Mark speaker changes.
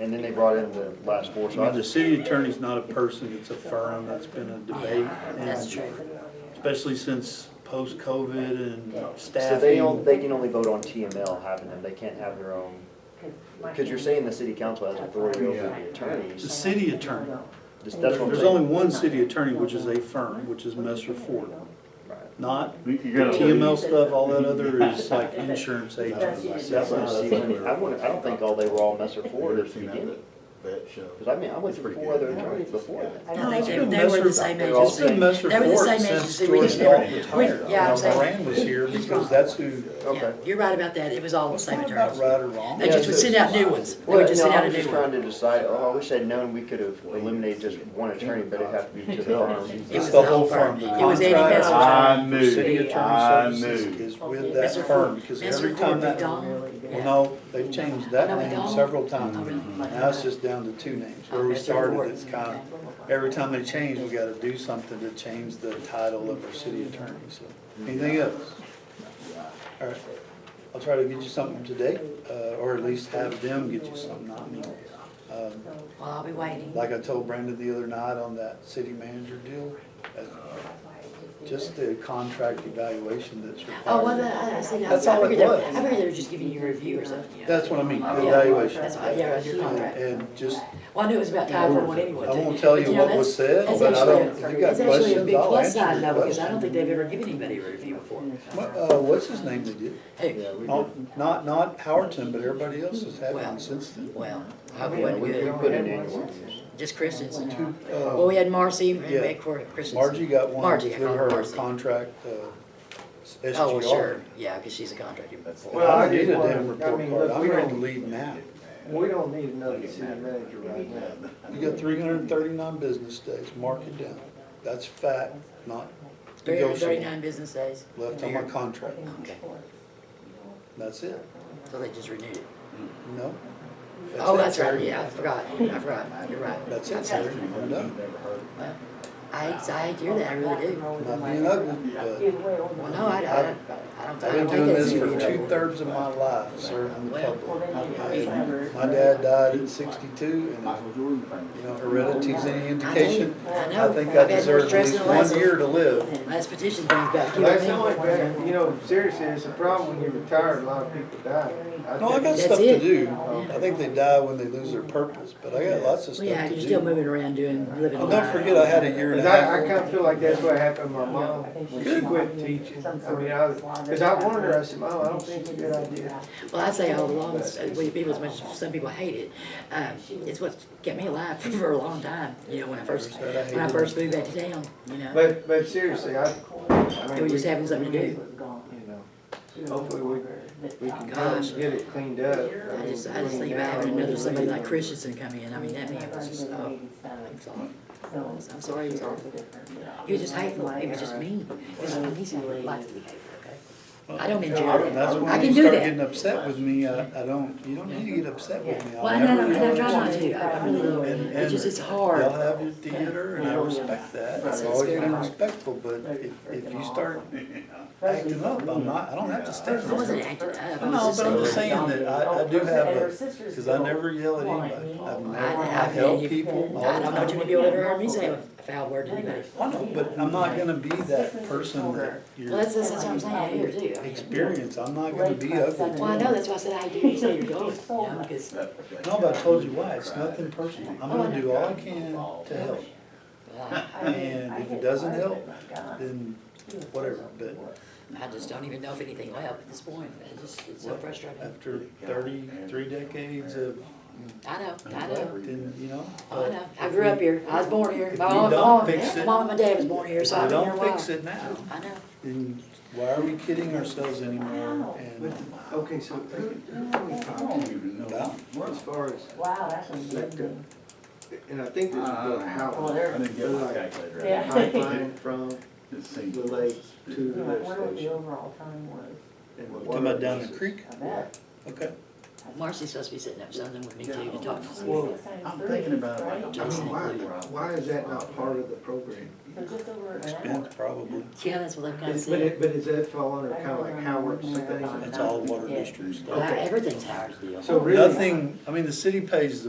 Speaker 1: and then they brought in the last four,
Speaker 2: I
Speaker 1: so I
Speaker 2: mean, the
Speaker 1: just,
Speaker 2: city attorney's not a person, it's a firm, that's been a debate.
Speaker 3: Ah, That's
Speaker 2: and
Speaker 3: true.
Speaker 2: Especially since post-COVID and
Speaker 1: so they, on-
Speaker 2: staffing.
Speaker 1: they can only vote on TML having them, they can't have their own, because you're saying the city council has authority over the
Speaker 2: The
Speaker 1: attorneys,
Speaker 2: city attorney,
Speaker 1: Just- that's what I'm
Speaker 2: there's only
Speaker 1: saying.
Speaker 2: one city attorney, which is a firm, which is Messer Ford.
Speaker 1: Right.
Speaker 2: Not
Speaker 4: You
Speaker 2: the
Speaker 4: gotta-
Speaker 2: TML stuff, all that other is like insurance agents.
Speaker 1: That's
Speaker 2: That's
Speaker 1: what
Speaker 2: not
Speaker 1: I'm
Speaker 2: a
Speaker 1: seeing.
Speaker 2: firm.
Speaker 1: I wouldn't, I don't think all they were all Messer Ford at the beginning,
Speaker 4: That show.
Speaker 1: because I mean, I went through four other attorneys before that.
Speaker 3: No,
Speaker 2: it's
Speaker 3: they-
Speaker 2: been
Speaker 3: they were the
Speaker 2: Messer-
Speaker 3: same
Speaker 2: It's been
Speaker 3: agency.
Speaker 2: Messer
Speaker 3: They were the
Speaker 2: Ford
Speaker 3: same
Speaker 2: since
Speaker 3: agency. We
Speaker 2: George
Speaker 3: just never-
Speaker 2: Dalton retired.
Speaker 3: we- yeah, I'm
Speaker 2: Now,
Speaker 3: saying-
Speaker 2: Moran was here
Speaker 3: He's
Speaker 2: because
Speaker 3: gone.
Speaker 2: that's who.
Speaker 3: Yeah,
Speaker 1: Okay.
Speaker 3: you're right about that. It was all the same
Speaker 2: It's not
Speaker 3: attorneys.
Speaker 2: Right or wrong.
Speaker 3: They just would send out new ones. They
Speaker 1: Well,
Speaker 3: would
Speaker 1: you
Speaker 3: just
Speaker 1: know,
Speaker 3: send
Speaker 1: I
Speaker 3: out a
Speaker 1: was just
Speaker 3: new
Speaker 1: trying
Speaker 3: one.
Speaker 1: to decide, oh, I wish I'd known we could have eliminated just one attorney, but it'd have to be to the firm.
Speaker 3: It was
Speaker 2: the
Speaker 3: the
Speaker 2: whole
Speaker 3: whole firm.
Speaker 2: firm.
Speaker 3: It was Andy
Speaker 2: Contract.
Speaker 3: Messer's
Speaker 4: I
Speaker 3: firm.
Speaker 4: knew,
Speaker 2: City Attorney
Speaker 4: I
Speaker 2: Services
Speaker 4: knew.
Speaker 2: is with that
Speaker 3: Messer
Speaker 2: firm, because
Speaker 3: Messer
Speaker 2: every
Speaker 3: Ford,
Speaker 2: time that,
Speaker 3: McDonald.
Speaker 2: well, no, they've changed that
Speaker 3: No, we
Speaker 2: name
Speaker 3: don't.
Speaker 2: several
Speaker 3: Oh,
Speaker 2: times.
Speaker 3: really? Oh,
Speaker 2: Now it's just down to two names, where we
Speaker 3: Messer
Speaker 2: started,
Speaker 3: Ford.
Speaker 2: it's kind of, every time they change, we gotta do something to change the title of our city attorney, so. Anything else? All right, I'll try to get you something today, uh, or at least have them get you something, not me. Um,
Speaker 3: Well, I'll be waiting.
Speaker 2: like I told Brandon the other night on that city manager deal, uh, just the contract evaluation that's
Speaker 3: Oh, well,
Speaker 2: required.
Speaker 3: I, I see. I
Speaker 2: That's all it
Speaker 3: figured they were,
Speaker 2: was.
Speaker 3: I figured they were just giving you a review or something. you know.
Speaker 2: That's what I mean, the
Speaker 3: Yeah,
Speaker 2: evaluation.
Speaker 3: That's why, yeah, your
Speaker 2: And
Speaker 3: contract.
Speaker 2: and just,
Speaker 3: Well, I knew it was about time for one anyway.
Speaker 2: I
Speaker 3: too.
Speaker 2: won't tell
Speaker 3: But,
Speaker 2: you
Speaker 3: know,
Speaker 2: what was
Speaker 3: that's-
Speaker 2: said,
Speaker 3: that's
Speaker 2: but I
Speaker 3: actually-
Speaker 2: don't- if you got
Speaker 3: that's actually a
Speaker 2: questions,
Speaker 3: big
Speaker 2: I'll
Speaker 3: plus
Speaker 2: answer
Speaker 3: sign,
Speaker 2: your
Speaker 3: though, Because I
Speaker 2: question.
Speaker 3: don't think they've ever given anybody a review before.
Speaker 2: uh, what's his name they did?
Speaker 3: Who?
Speaker 2: Oh, Not, not Howerton, but everybody else has had one since then.
Speaker 3: Well, I hope it
Speaker 1: Yeah,
Speaker 3: wasn't
Speaker 1: we we
Speaker 3: good.
Speaker 1: put in annual reviews.
Speaker 3: Just Christensen.
Speaker 2: Two,
Speaker 3: Well,
Speaker 2: uh,
Speaker 3: we had Marcy and we
Speaker 2: Yeah.
Speaker 3: had Cor- Christensen.
Speaker 2: Margie got one
Speaker 3: Margie, I
Speaker 2: through
Speaker 3: call her
Speaker 2: her
Speaker 3: Marcy. Oh,
Speaker 2: contract, uh,
Speaker 3: well,
Speaker 2: SGR.
Speaker 3: sure, yeah, because she's a contractor.
Speaker 2: And I don't need a
Speaker 5: Well, I
Speaker 2: damn
Speaker 5: just
Speaker 2: report
Speaker 5: wanna- I mean,
Speaker 2: card,
Speaker 5: look,
Speaker 2: I'm
Speaker 5: we
Speaker 2: ready to
Speaker 5: don't-
Speaker 2: leave now.
Speaker 5: We don't need another city manager right now.
Speaker 2: You got three hundred and thirty-nine business days, mark it down. That's fact, not
Speaker 3: Three hundred
Speaker 2: negotiable.
Speaker 3: thirty-nine business days.
Speaker 2: Left on my contract,
Speaker 3: "Oh, Okay,
Speaker 2: that's it.
Speaker 3: so they just renewed it.
Speaker 2: No?
Speaker 3: Oh,
Speaker 2: it,
Speaker 3: that's right,
Speaker 2: Terry.
Speaker 3: yeah, I forgot, I forgot, you're right.
Speaker 2: That's it,
Speaker 3: Okay.
Speaker 2: Terry, I'm done.
Speaker 3: I, I hear that, I really do.
Speaker 2: Not being ugly, but
Speaker 3: Well, no, I, I, I don't, I
Speaker 2: I've
Speaker 3: don't
Speaker 2: been
Speaker 3: think
Speaker 2: doing
Speaker 3: that's
Speaker 2: this for
Speaker 3: any trouble.
Speaker 2: two-thirds of my life, serving the
Speaker 3: Well,
Speaker 2: public. And My dad died at sixty-two, and if, you know, heredity's any indication,
Speaker 3: I know.
Speaker 2: I think I
Speaker 3: I've had more
Speaker 2: deserve at
Speaker 3: stress
Speaker 2: least
Speaker 3: than the last
Speaker 2: one year to live.
Speaker 3: Last petition things back here.
Speaker 5: That's the only bad, you know, seriously, it's a problem when you retire, a lot of people die.
Speaker 2: No, I got
Speaker 3: That's
Speaker 2: stuff to
Speaker 3: it.
Speaker 2: do. I think they die when they lose their purpose, but I got lots of stuff
Speaker 3: Yeah,
Speaker 2: to
Speaker 3: you're still
Speaker 2: do.
Speaker 3: moving around doing, living.
Speaker 2: And
Speaker 3: life.
Speaker 2: Oh, don't forget, I had a year and a
Speaker 5: Cause I, I
Speaker 2: half.
Speaker 5: kinda feel like that's what happened to my mom when she quit teaching. I mean, I, was- cause I warned her, I said, Mom, I don't think it's a good idea.
Speaker 3: Well, I say all along, uh, we people, as much as some people hate it, um, it's what kept me alive for a long time, you know, when I first, when I first moved back to town, you know.
Speaker 5: But, but seriously, I, I
Speaker 3: It
Speaker 5: mean,
Speaker 3: was
Speaker 5: we,
Speaker 3: just
Speaker 5: you
Speaker 3: having something to do.
Speaker 5: know, hopefully we, we can kind
Speaker 3: Gosh.
Speaker 5: of get it cleaned up.
Speaker 3: I just, I just think about having another somebody like Christensen come in, I mean, that man was just, oh, I'm sorry. I'm sorry, he was awful. He was just hateful, he was just mean, he was, he's like to be hateful, okay? I don't enjoy
Speaker 2: And that's
Speaker 3: that, I
Speaker 2: when
Speaker 3: can
Speaker 2: you
Speaker 3: do
Speaker 2: start getting
Speaker 3: that.
Speaker 2: upset with me, I, I don't, you don't need to get upset with me. I'll
Speaker 3: Well, I know,
Speaker 2: never
Speaker 3: and I
Speaker 2: get
Speaker 3: try not
Speaker 2: upset.
Speaker 3: to, I I really
Speaker 2: And-
Speaker 3: don't, it's just, it's hard.
Speaker 2: Y'all have your theater, and I respect that, I've always been respectful, but if, if you start acting up, I'm not, I don't have to stand
Speaker 3: I wasn't
Speaker 2: there.
Speaker 3: acting up. I was
Speaker 2: No, but I'm just
Speaker 3: really
Speaker 2: saying
Speaker 3: dumb.
Speaker 2: that I, I do have a, because I never yell at anybody, I've never, I help people all
Speaker 3: I
Speaker 2: the
Speaker 3: don't know, Jimmy,
Speaker 2: time.
Speaker 3: you'll ever heard me say a foul word to anybody.
Speaker 2: I know, but I'm not gonna be that person that
Speaker 3: Well,
Speaker 2: you're
Speaker 3: that's, that's what I'm saying out here too. I mean,
Speaker 2: experienced, I'm not gonna be ugly.
Speaker 3: Well, I know, that's why I said I do, you say you're going, you know, because, well,
Speaker 2: No, but I told you why, it's nothing personal, I'm gonna do all I can to help,
Speaker 3: I-
Speaker 2: and if it doesn't help, then whatever, but
Speaker 3: I just don't even know if anything will help at this point. It's just, it's so frustrating.
Speaker 2: after thirty-three decades of,
Speaker 3: I know, I know,
Speaker 2: then, you know.
Speaker 3: I know. I grew up here, I was born here.
Speaker 2: If
Speaker 3: My
Speaker 2: you
Speaker 3: mom,
Speaker 2: don't
Speaker 3: mom-
Speaker 2: fix it-
Speaker 3: mom and my dad was born here,
Speaker 2: If
Speaker 3: so
Speaker 2: we
Speaker 3: I've been here a
Speaker 2: don't
Speaker 3: while.
Speaker 2: fix it now,
Speaker 3: I know.
Speaker 2: then why are we kidding ourselves anymore? And
Speaker 5: Okay, so who, who are we talking
Speaker 2: about,
Speaker 5: to as far as,
Speaker 6: Wow, that's amazing.
Speaker 5: and I think this is the
Speaker 6: Well,
Speaker 5: house,
Speaker 6: there-
Speaker 4: I didn't get my calculator.
Speaker 6: Yeah.
Speaker 5: pipeline from
Speaker 4: It seems-
Speaker 5: the lake to
Speaker 6: You
Speaker 5: the
Speaker 6: know, I wonder
Speaker 5: lift
Speaker 6: what the
Speaker 5: station.
Speaker 6: overall time was.
Speaker 5: and the
Speaker 2: talking about
Speaker 5: water
Speaker 2: down the
Speaker 5: uses.
Speaker 2: creek?
Speaker 6: I bet.
Speaker 2: Okay.
Speaker 3: Marcy's supposed to be sitting up something with me too to talk to.
Speaker 6: Well,
Speaker 3: somebody.
Speaker 6: six times
Speaker 4: I'm
Speaker 6: three,
Speaker 4: thinking about it like
Speaker 6: right?
Speaker 4: I'm
Speaker 5: I mean,
Speaker 4: listening.
Speaker 5: why, why is that not part of the program?
Speaker 6: So just over an hour.
Speaker 2: Spent probably,
Speaker 3: Yeah, that's what I'm kind of
Speaker 5: Is- But
Speaker 3: saying.
Speaker 5: it, but is that fall under kind of like Howard's thing?
Speaker 2: it's all water district
Speaker 3: Well,
Speaker 2: stuff.
Speaker 3: Everything's Howard's deal.
Speaker 5: So really.
Speaker 2: Nothing, I mean, the city pays the